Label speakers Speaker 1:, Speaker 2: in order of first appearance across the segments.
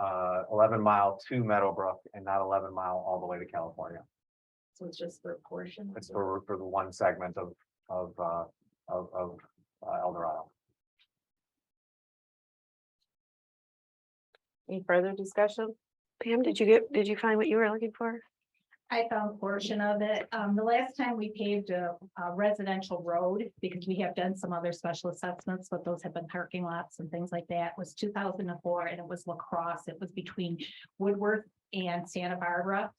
Speaker 1: uh, eleven mile to Meadowbrook and not eleven mile all the way to California.
Speaker 2: So it's just for a portion.
Speaker 1: It's for, for the one segment of, of, uh, of, of uh, El Dorado.
Speaker 3: Any further discussion? Pam, did you get, did you find what you were looking for?
Speaker 2: I found a portion of it. Um, the last time we paved a a residential road, because we have done some other special assessments, but those have been parking lots and things like that, was two thousand and four, and it was lacrosse. It was between Woodworth and Santa Barbara.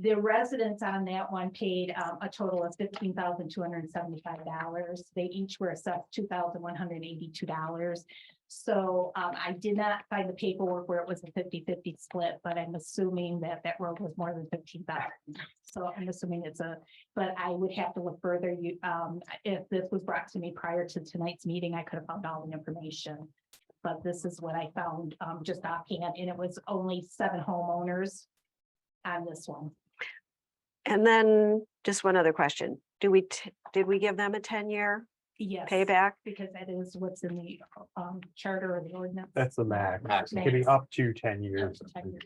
Speaker 2: The residents on that one paid um, a total of fifteen thousand two hundred and seventy-five dollars. They each were assessed two thousand one hundred and eighty-two dollars. So um, I did not find the paperwork where it was a 50-50 split, but I'm assuming that that road was more than fifteen thousand. So I'm assuming it's a, but I would have to look further. You, um, if this was brought to me prior to tonight's meeting, I could have found all the information. But this is what I found, um, just offhand, and it was only seven homeowners on this one.
Speaker 3: And then just one other question. Do we, t- did we give them a ten-year
Speaker 2: Yes.
Speaker 3: payback?
Speaker 2: Because that is what's in the, um, charter or the ordinance.
Speaker 4: That's the max.
Speaker 1: Max.
Speaker 4: It could be
Speaker 2: Max.
Speaker 4: up to ten
Speaker 2: Up
Speaker 4: years.
Speaker 2: to 10 years.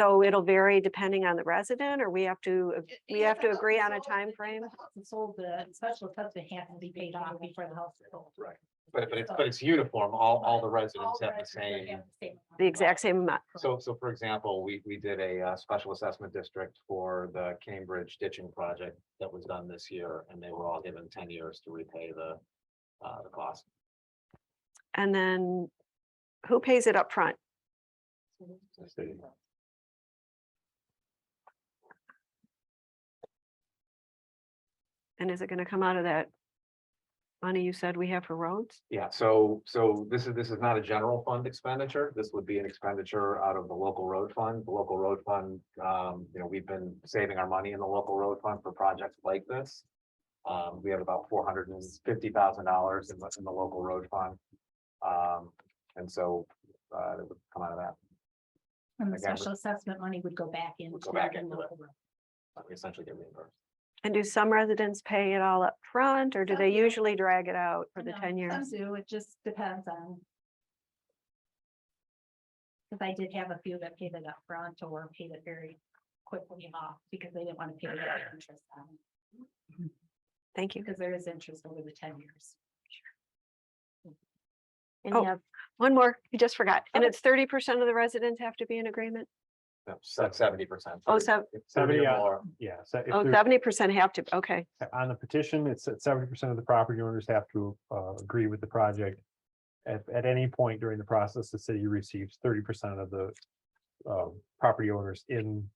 Speaker 3: So it'll vary depending on the resident or we have to, ag- we have to agree on a time frame.
Speaker 2: Sold the special assessment has to be paid off before the house is sold.
Speaker 1: Right. But, but it's, but it's uniform, all, all the residents have the same.
Speaker 3: The exact same amount.
Speaker 1: So, so for example, we, we did a, uh, special assessment district for the Cambridge ditching project that was done this year, and they were all given ten years to repay the, uh, the cost.
Speaker 3: And then who pays it up front? And is it going to come out of that money you said we have for roads?
Speaker 1: Yeah, so, so this is, this is not a general fund expenditure. This would be an expenditure out of the local road fund. The local road fund, um, you know, we've been saving our money in the local road fund for projects like this. Um, we have about four hundred and fifty thousand dollars in the, in the local road fund. Um, and so, uh, it would come out of that.
Speaker 2: And the
Speaker 1: Again, we-
Speaker 2: special assessment money would go back in.
Speaker 1: Would go back into it. We essentially get reimbursed.
Speaker 3: And do some residents pay it all up front, or do
Speaker 2: Some
Speaker 3: they
Speaker 2: do.
Speaker 3: usually drag it out for the ten years?
Speaker 2: Um, Some do, it just depends on. Cause I did have a few that paid it up front or paid it very quickly off because they didn't want to pay the interest on, it,
Speaker 3: Thank you.
Speaker 2: because there is interest over the ten years.
Speaker 3: Oh,
Speaker 2: Any other
Speaker 3: One more, you just forgot. And
Speaker 2: Okay.
Speaker 3: it's thirty percent of the residents have to be in agreement?
Speaker 1: seventy percent.
Speaker 3: Oh, sev-
Speaker 1: Seventy
Speaker 4: Seventy, uh,
Speaker 1: or more.
Speaker 4: Yeah, so if
Speaker 3: oh,
Speaker 4: there's-
Speaker 3: seventy percent have to, okay.
Speaker 4: on the petition, it's at seventy percent of the property owners have to uh agree with the project. At at any point during the process, the city receives thirty percent of the um property owners in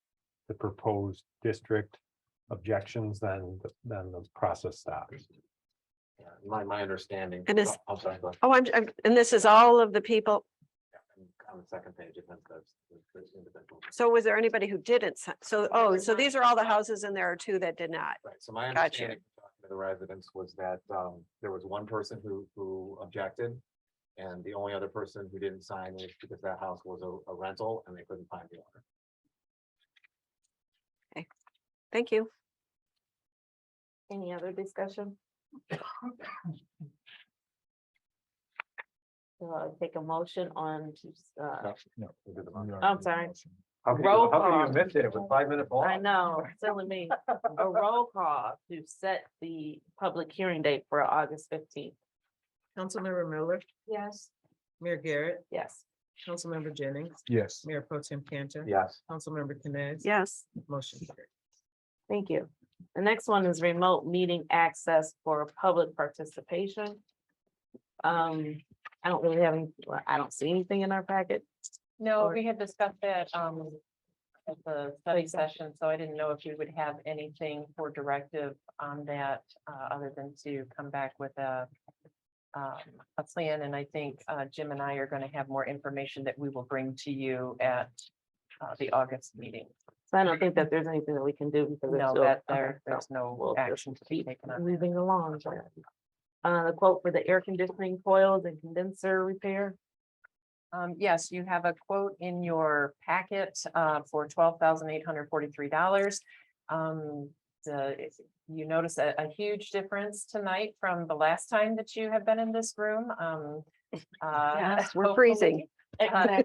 Speaker 4: the proposed district. Objections, then then the process stops.
Speaker 1: Yeah, My, my understanding.
Speaker 3: And it's-
Speaker 1: I'm sorry, go ahead.
Speaker 3: Oh, I'm, I'm, and this is all of the people.
Speaker 1: On the second page, it says there's, there's individual.
Speaker 3: So was there anybody who didn't? si- So, oh, so these are all the houses and there are two that did not.
Speaker 1: Right, so my
Speaker 3: Gotcha.
Speaker 1: understanding from talking to the residents was that um there was one person who who objected. And the only other person who didn't sign was because that house was a a rental and they couldn't find the owner.
Speaker 3: Thank you. Any other discussion?
Speaker 5: uh, take a motion on to, uh,
Speaker 1: I'm
Speaker 5: I'm sorry.
Speaker 1: How could you-
Speaker 5: Roll
Speaker 1: how could
Speaker 5: call.
Speaker 1: you miss it? It was five minute ball.
Speaker 5: I know, it's telling me, a roll call to set the public hearing date for August fifteenth.
Speaker 6: Councilmember Miller,
Speaker 2: Yes.
Speaker 6: Mayor Garrett,
Speaker 5: Yes,
Speaker 6: Councilmember Jennings,
Speaker 4: Yes.
Speaker 6: Mayor Pro Tem Cantor,
Speaker 1: Yes,
Speaker 6: Councilmember Canes.
Speaker 3: Yes,
Speaker 6: Motion carried.
Speaker 5: thank you. The next one is remote meeting access for public participation. Um, I don't really have any, well, I don't see anything in our packet.
Speaker 7: No,
Speaker 5: Or-
Speaker 7: we had discussed that, um, at the study session, so I didn't know if you would have anything for directive on that, uh, other than to come back with a um, a plan, and I think, uh, Jim and I are gonna have more information that we will bring to you at uh, the August meeting.
Speaker 5: So I don't think that there's anything that we can do because. it's
Speaker 7: No,
Speaker 5: still-
Speaker 7: that
Speaker 5: okay,
Speaker 7: there,
Speaker 5: so
Speaker 7: there's no
Speaker 5: we'll just
Speaker 7: action to be
Speaker 5: keep
Speaker 7: taken on.
Speaker 5: Moving along. Uh, the quote for the air conditioning coils and condenser repair.
Speaker 7: Um, yes, you have a quote in your packet, uh, for twelve thousand eight hundred forty-three dollars. Um, the, if you notice a, a huge difference tonight from the last time that you have been in this room, um. uh,
Speaker 3: Yes, we're
Speaker 7: hopefully-
Speaker 3: freezing.
Speaker 7: Uh,